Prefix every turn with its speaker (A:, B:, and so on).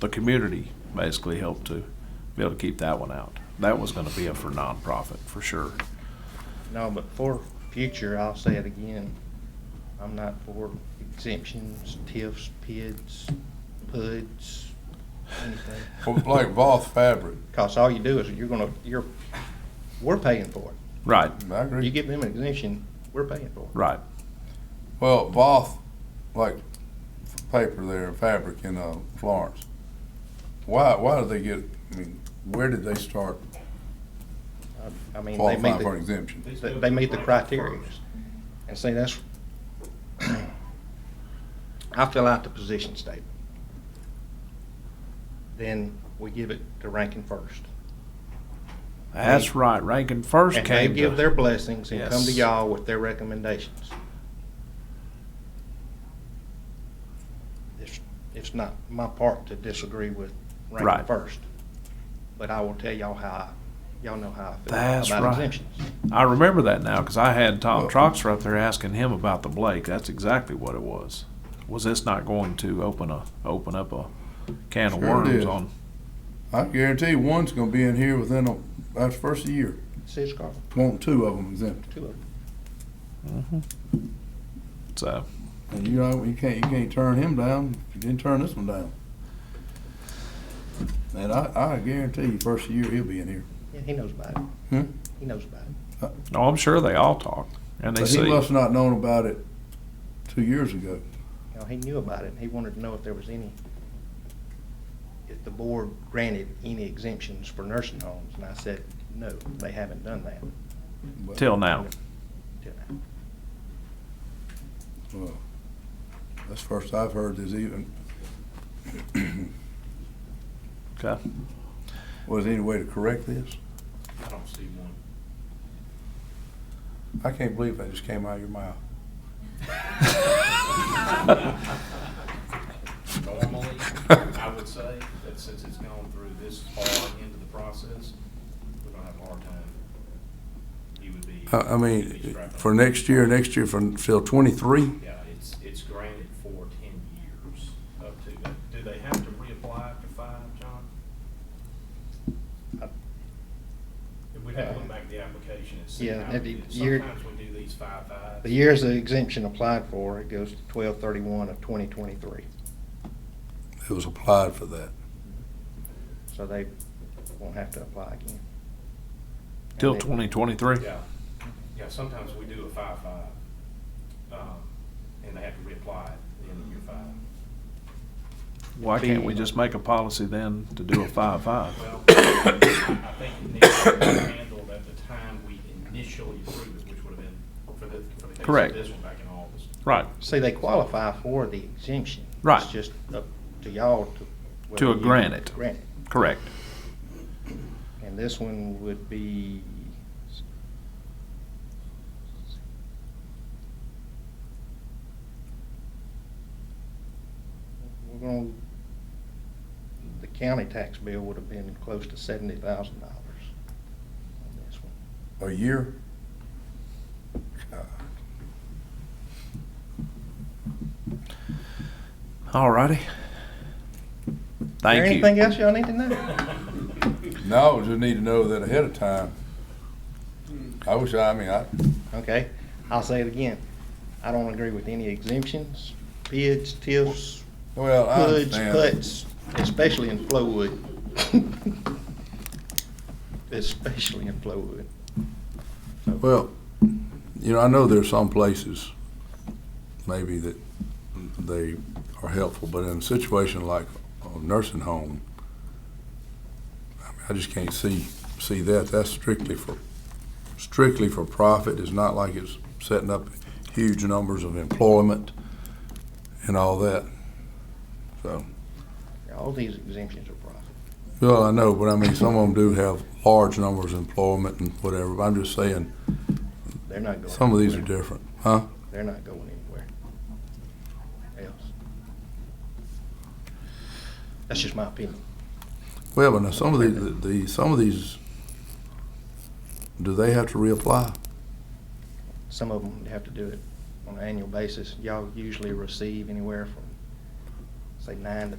A: the community basically helped to be able to keep that one out. That was gonna be a for nonprofit, for sure.
B: No, but for future, I'll say it again, I'm not for exemptions, TIFs, PIDs, PUDs, anything.
C: Well, Like Voth Fabric,
B: Cause all you do is you're gonna, you're, we're paying for it.
A: Right,
C: I
B: You
C: agree.
B: give them an exemption, we're paying for it.
A: right.
C: Well, Voth, like f- paper there, fabric in uh, Florence. Why, why did they get, I mean, where did they start
B: I mean, they meet
C: qualifying for an
B: the,
C: exemption?
B: they- they meet the criteria. And see, that's, I fill out the position statement. Then we give it to ranking first.
A: That's right, Rankin first
B: And they
A: came
B: give
A: to,
B: their blessings and come to
A: Yes.
B: y'all with their recommendations. It's, it's not my part to disagree with ranking
A: Right.
B: first, but I will tell y'all how, y'all know how I
A: That's
B: feel
A: right.
B: about exemptions.
A: I remember that now, cause I had Tom
C: Well-
A: Troxler up there asking him about the Blake, that's exactly what it was. Was this not going to open a, open up a can of
C: Sure
A: worms
C: did.
A: on,
C: I guarantee one's gonna be in here within, a- that's first of the year,
B: See, it's got
C: want two of them exempted.
B: two of them.
A: so,
C: And you, know, you can't, you can't turn him down, if you didn't turn this one down. And I, I guarantee you, first of the year, he'll be in here.
B: Yeah, he knows about
C: Hmm?
B: it. He knows about it.
A: no, I'm sure they all talked, and they
C: But he
A: see.
C: must not known about it two years ago.
B: You know, he knew about it. and He wanted to know if there was any, if the board granted any exemptions for nursing homes, and I said, no, they haven't done that.
C: but-
A: Till now.
B: till now."
C: Well, That's the first I've heard there's even,
A: Okay.
C: was there any way to correct this?
D: I don't see one.
C: I can't believe that just came out of your mouth.
D: Normally, I would say that since it's gone through this far into the process, we're gonna have a hard time. He would be.
C: I, I
D: he'd be
C: mean,
D: strapped
C: for
D: up.
C: next year, next year for, till twenty-three?
D: Yeah, it's, it's granted for ten years up to, do they have to reapply after five, John?
B: Uh,
D: If We'd have to look back at the application and see
B: Yeah,
D: how
B: have
D: it
B: you-
D: is.
B: you're-
D: Sometimes we do these five fives.
B: The years the exemption applied for, it goes to twelve thirty-one of twenty twenty-three.
C: It was applied for that.
B: So they won't have to apply again.
A: Till
B: And they-
A: twenty twenty-three?
D: Yeah, yeah, sometimes we do a five-five, um, and they have to reapply at the end of year five.
A: Why can't we just make a policy then to do a five-five?
D: Well, I think it needs to be handled at the time we initially approved it, which would have been for the, for the case
A: Correct.
D: of this one back in August.
A: Right,
B: See, they qualify for the exemption.
A: Right.
B: It's just up to y'all to. whether
A: To
B: you
A: grant it.
B: Grant it.
A: correct.
B: And this one would be. We're gonna, the county tax bill would have been close to seventy thousand dollars on this one.
C: A year? God.
A: All righty.
B: Is there
A: Thank
B: Anything
A: you.
B: else y'all need to know?
C: No, just need to know that ahead of time. I wish, I I mean, I,
B: Okay, I'll say it again. I don't agree with any exemptions, bids, tiffs,
C: well, I
B: hoods,
C: understand.
B: cuts, especially in Flowood. Especially in Flowood.
C: Well, you know, I know there's some places maybe that they are helpful, but in a situation like a nursing home, I mean, I just can't see, see that. That's strictly for, strictly for profit. It's not like it's setting up huge numbers of employment and all that. So,
B: All these exemptions are profit.
C: well, I know, but I mean, some of them do have large numbers of employment and whatever. But I'm just saying,
B: They're not going.
C: some of these are
B: anywhere.
C: different, huh?
B: They're not going anywhere else. That's just my opinion.
C: Well, but now some of these, the, some of these, do they have to reapply?
B: Some of them have to do it on an annual basis. Y'all usually receive anywhere from, say, nine to